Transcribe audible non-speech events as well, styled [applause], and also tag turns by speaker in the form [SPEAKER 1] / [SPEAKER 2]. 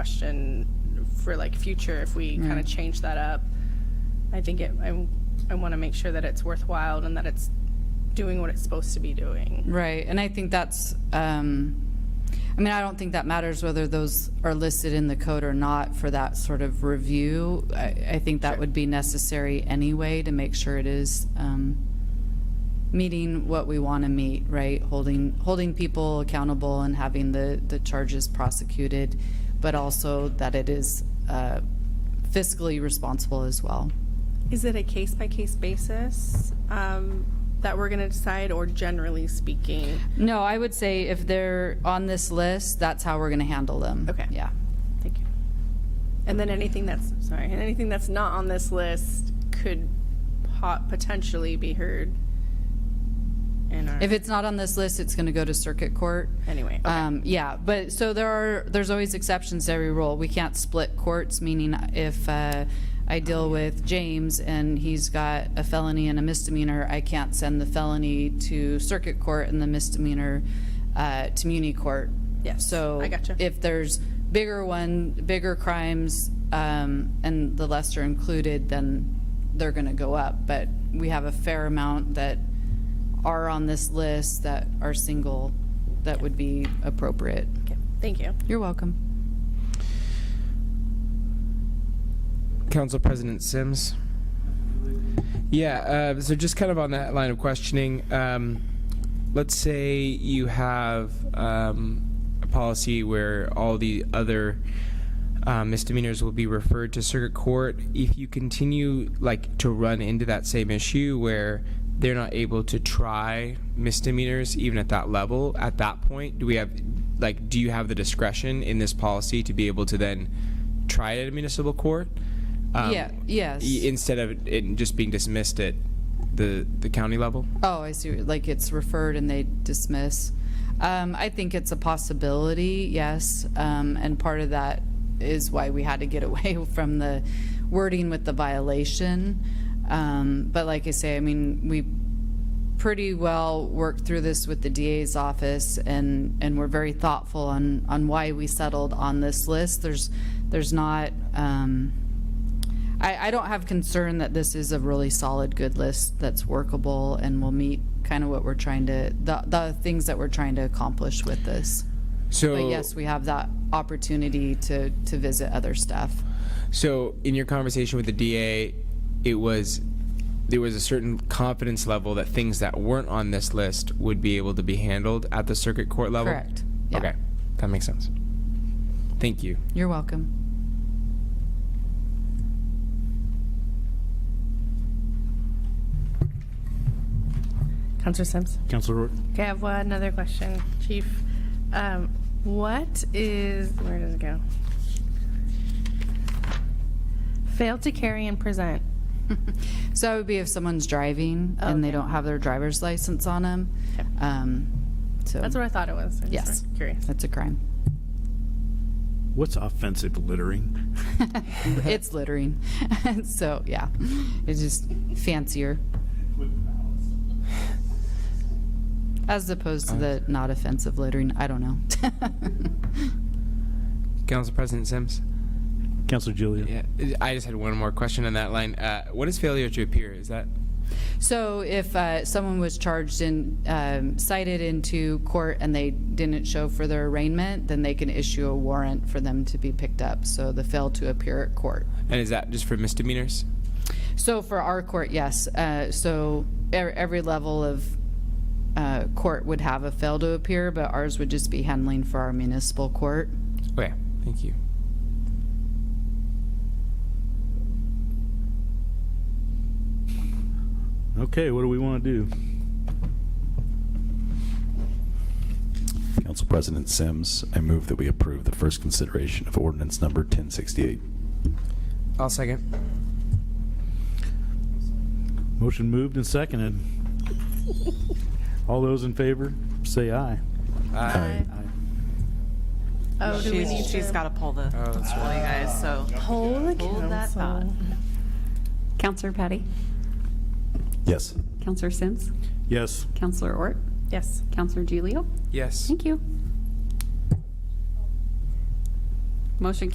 [SPEAKER 1] question for like future if we kind of change that up. I think it, I, I want to make sure that it's worthwhile and that it's doing what it's supposed to be doing.
[SPEAKER 2] Right, and I think that's, um, I mean, I don't think that matters whether those are listed in the code or not for that sort of review. I, I think that would be necessary anyway to make sure it is um, meeting what we want to meet, right? Holding, holding people accountable and having the, the charges prosecuted, but also that it is uh, fiscally responsible as well.
[SPEAKER 1] Is it a case by case basis um, that we're going to decide, or generally speaking?
[SPEAKER 2] No, I would say if they're on this list, that's how we're going to handle them.
[SPEAKER 1] Okay.
[SPEAKER 2] Yeah.
[SPEAKER 1] Thank you. And then anything that's sorry, and anything that's not on this list could pot- potentially be heard. In our,
[SPEAKER 2] If it's not on this list, it's going to go to circuit court.
[SPEAKER 1] anyway, okay.
[SPEAKER 2] Um, yeah, but, so there are, there's always exceptions to every rule. We can't split courts, meaning if, uh, I deal with James and he's got a felony and a misdemeanor, I can't send the felony to circuit court and the misdemeanor, uh, to muni court.
[SPEAKER 1] Yes,
[SPEAKER 2] So.
[SPEAKER 1] I gotcha.
[SPEAKER 2] If there's bigger one, bigger crimes, um, and the lesser included, then they're gonna go up. But we have a fair amount that are on this list that are single, that would be appropriate.
[SPEAKER 1] okay. Thank you.
[SPEAKER 2] You're welcome.
[SPEAKER 3] Council President Sims. Yeah, uh, so just kind of on that line of questioning, um, let's say you have um, a policy where all the other uh, misdemeanors will be referred to circuit court. If you continue like to run into that same issue where they're not able to try misdemeanors even at that level, at that point, do we have like do you have the discretion in this policy to be able to then try it at a municipal court? Um,
[SPEAKER 2] Yeah, yes.
[SPEAKER 3] i- Instead of it just being dismissed at the, the county level?
[SPEAKER 2] Oh, I see, like it's referred and they dismiss. Um, I think it's a possibility, yes, um, and part of that is why we had to get [laughs] away from the wording with the violation. Um, but like I say, I mean, we pretty well worked through this with the DA's office and, and we're very thoughtful on, on why we settled on this list. There's, there's not, um, I, I don't have concern that this is a really solid, good list that's workable and will meet kind of what we're trying to, the, the things that we're trying to accomplish with this.
[SPEAKER 3] So,
[SPEAKER 2] But yes, we have that opportunity to, to visit other stuff.
[SPEAKER 3] so in your conversation with the DA, it was there was a certain confidence level that things that weren't on this list would be able to be handled at the circuit court level.
[SPEAKER 2] Correct. Yeah.
[SPEAKER 3] Okay, that makes sense. Thank you.
[SPEAKER 2] You're welcome. [laughs]
[SPEAKER 1] Councillor Sims.
[SPEAKER 4] Counselor Roy.
[SPEAKER 1] Okay, I have one another question, Chief. Um, what is where does it go? Fail to carry and present.
[SPEAKER 2] So that would be if someone's driving and they don't have their driver's license on them.
[SPEAKER 1] Okay.
[SPEAKER 2] Um, so
[SPEAKER 1] That's what I thought it was. I just
[SPEAKER 2] Yes.
[SPEAKER 1] was Curious.
[SPEAKER 2] that's a crime.
[SPEAKER 4] What's offensive littering?
[SPEAKER 2] it's littering. [laughs] so yeah, it's just fancier. As opposed to the not offensive littering, I don't know. [laughs]
[SPEAKER 3] Council President Sims.
[SPEAKER 4] Counselor Julia.
[SPEAKER 3] Yeah, I just had one more question on that line. Uh, what is failure to appear? Is that
[SPEAKER 2] so if uh, someone was charged and um, cited into court and they didn't show for their arraignment, then they can issue a warrant for them to be picked up. So the fail to appear at court.
[SPEAKER 3] and is that just for misdemeanors?
[SPEAKER 2] So for our court, yes. Uh, So er- every level of uh, court would have a fail to appear, but ours would just be handling for our municipal court.
[SPEAKER 3] Okay, Oh, thank you.
[SPEAKER 4] Okay, what do we want to do?
[SPEAKER 5] Council President Sims, I move that we approve the first consideration of ordinance number 1068.
[SPEAKER 3] I'll second.
[SPEAKER 4] Motion moved and seconded. All those in favor, say aye.
[SPEAKER 5] Aye.
[SPEAKER 1] Oh, do we need
[SPEAKER 6] She's, she's
[SPEAKER 1] to
[SPEAKER 6] got to pull the, pull you guys, so
[SPEAKER 1] hold the
[SPEAKER 6] hold that thought.
[SPEAKER 7] Counselor Patty?
[SPEAKER 5] Yes.
[SPEAKER 7] Counselor Sims?
[SPEAKER 4] Yes.
[SPEAKER 7] Counselor Ort?
[SPEAKER 1] Yes.
[SPEAKER 7] Counselor Gilio?
[SPEAKER 3] Yes.
[SPEAKER 7] Thank you. Motion